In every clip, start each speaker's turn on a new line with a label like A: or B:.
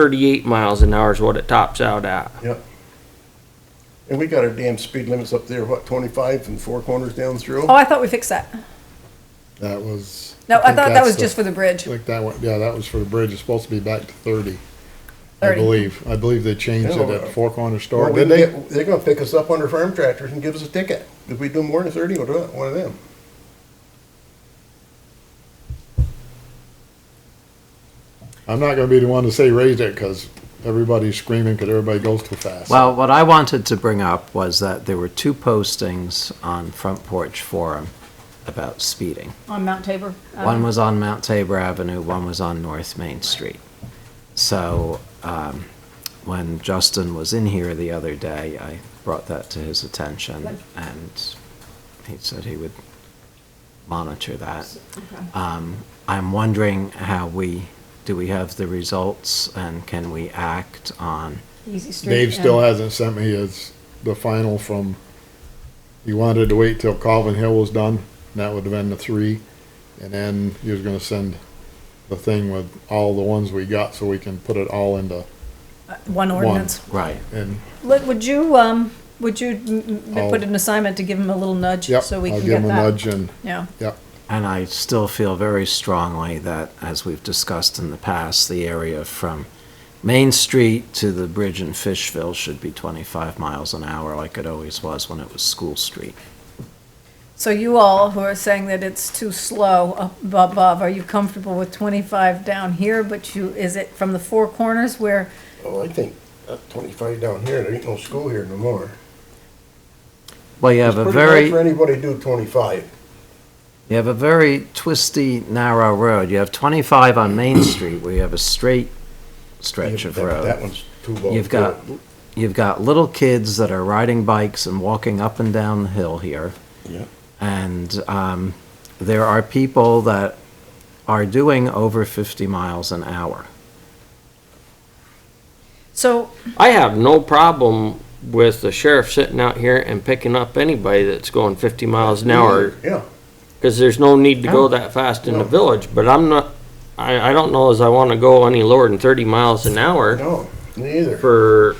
A: thirty-eight miles an hour is what it tops out at.
B: Yep. And we got our damn speed limits up there, what, twenty-five and four corners down through?
C: Oh, I thought we fixed that.
D: That was.
C: No, I
D: think
C: thought that
D: that's
C: was
D: the-
C: just for the bridge.
D: Like that one, yeah, that was for the bridge. It's supposed to be back to thirty. I
C: 30.
D: believe, I believe they changed it
B: Yeah.
D: at the Fork on the Store,
B: Or we
D: did
B: can
D: they?
B: get- They're gonna pick us up under farm tractors and give us a ticket. If we do more than thirty, we'll do it, one of them.
D: I'm not gonna be the one to say raise it, cause everybody's screaming, cause everybody goes too fast.
E: Well, what I wanted to bring up was that there were two postings on Front Porch Forum about speeding.
F: on Mount Tabor.
C: Oh. um,
F: uh,
E: One was on Mount Tabor Avenue, one was on North Main Street. So um, when Justin was in here the other day, I brought that to his attention, and he said he would monitor that. Um, I'm wondering how we, do we have the results, and can we act on?
F: Easy Street.
D: Dave still
F: and-
D: hasn't sent me his, the final from, he wanted to wait till Calvin Hill was done, and that would have been the three. And then he was gonna send the thing with all the ones we got, so we can put it all into,
C: One ordinance.
E: Right.
D: and
C: Let- Would you, um, would you m- m-
D: I'll-
C: put an assignment to give him a little nudge?
D: yep,
C: So
D: I'll
C: we can
D: give
C: get
D: him a
C: that?
D: nudge and,
C: Yeah.
D: yep.
E: And I still feel very strongly that, as we've discussed in the past, the area from Main Street to the bridge in Fishville should be 25 miles an hour like it always was when it was School Street.
C: So you all who are saying that it's too slow up above, are you comfortable with twenty-five down here? But you, is it from the four corners where,
B: Oh, I think up twenty-five down here, there ain't no school here no more.
E: Well, you have a very,
B: For anybody to do twenty-five.
E: you have a very twisty, narrow road. You have 25 on Main Street where you have a straight stretch of
B: That-
E: road.
B: That one's too low.
E: You've got, you've got little kids that are riding bikes and walking up and down the hill here.
B: Yeah.
E: And um, there are people that are doing over 50 miles an hour.
C: so
A: I have no problem with the sheriff sitting out here and picking up anybody that's going fifty miles an hour,
B: Yeah,
A: cause there's no need to
E: No.
A: go that fast in the
B: No.
A: village, but I'm not, I, I don't know as I wanna go any lower than thirty miles an hour
B: no, neither.
A: for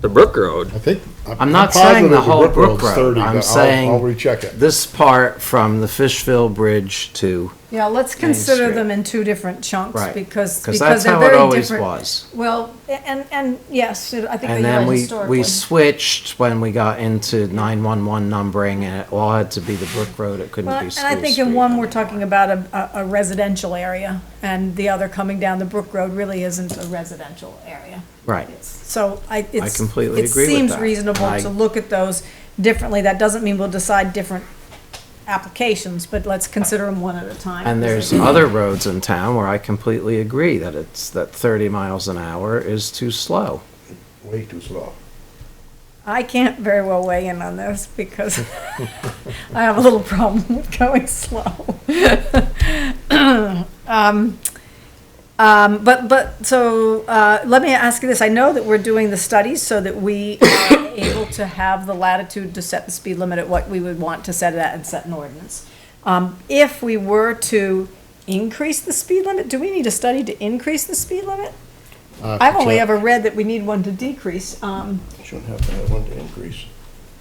A: the Brook Road.
D: I think.
E: I'm not
D: positive
E: saying the whole
D: Brook Road's
E: Brook Road.
D: 30, but
E: I'm
D: I'll- I'll
E: saying
D: recheck it.
E: this part from the Fishville Bridge to,
C: Yeah, let's
E: Main
C: consider
E: Street.
C: them in two different chunks
E: Right,
C: because,
E: 'cause
C: because
E: that's
C: they're
E: how it
C: very
E: always
C: different.
E: was.
C: Well, a- and, and yes, I think
E: and
C: they are
E: then we, we
C: historically.
E: switched when we got into 911 numbering and it all had to be the Brook Road. It couldn't
C: Well,
E: be
C: and
E: School
C: I think in
E: Street
C: one,
E: anymore.
C: we're talking about a, a a residential area and the other coming down the Brook Road really isn't a residential area.
E: Right.
C: So I, it's.
E: completely agree with
C: It seems
E: that.
C: reasonable
E: I-
C: to look at those differently. That doesn't mean we'll decide different applications, but let's consider them one at a time.
E: And there's other roads in town where I completely agree that it's, that 30 miles an hour is too slow.
B: Way too slow.
C: I can't very well weigh in on this because I have a little problem with going slow. Um, um, But, but, so, uh, let me ask you this, I know that we're doing the studies so that we are able to have the latitude to set the speed limit at what we would want to set it at and set an ordinance. Um, If we were to increase the speed limit, do we need a study to increase the speed limit?
D: I'll have to
C: I've only
D: check.
C: ever read that we need one to decrease. um,
B: Shouldn't have to have one to increase.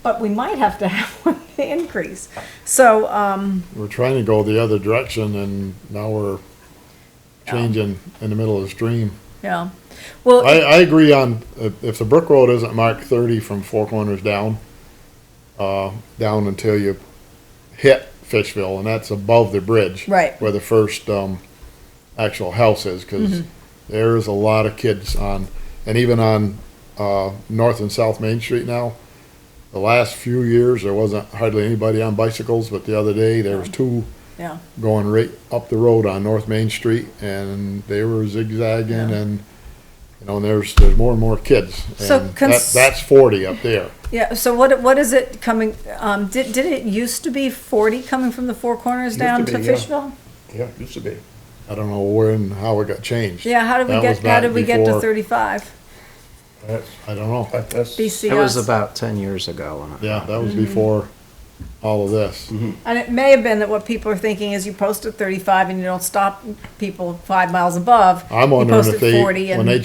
C: but we might have to have one increase. So, um,
D: We're trying to go the other direction and now we're changing in the middle of the stream.
C: yeah, well,
D: I, I agree on, if if the Brook Road isn't marked thirty from Four Corners down, uh, down until you hit Fishville, and that's above the bridge.
C: Right.
D: Where the first, um, actual house is,
C: Mm-hmm.
D: cause there's a lot of kids on, and even on, uh, North and South Main Street now. The last few years, there wasn't hardly anybody on bicycles, but the other day, there was two
C: yeah,
D: going right up the road on North Main Street, and they were zigzagging, and you know, and there's there's more and more kids. And
C: So cons-
D: that, that's forty up there.
C: yeah. So what what is it coming? Um, did did it used to be forty coming from the Four Corners
B: Used
C: down
B: to
C: to
B: be, yeah.
C: Fishville?
B: Yeah, used to be.
D: I don't know where and how it got changed.
C: Yeah. How did we
D: That
C: get
D: was
C: How
D: back
C: did we get to
D: before-
C: thirty five?
B: That's,
D: I don't know.
B: that- that's.
C: BCS.
E: It was about 10 years ago. when I-
D: Yeah, that was before all of this.
C: And it may have been that what people are thinking is you post at thirty-five and you don't stop people five miles above.
D: I'm
C: You
D: wondering
C: post
D: if
C: at
D: they,
C: 40 and-
D: when they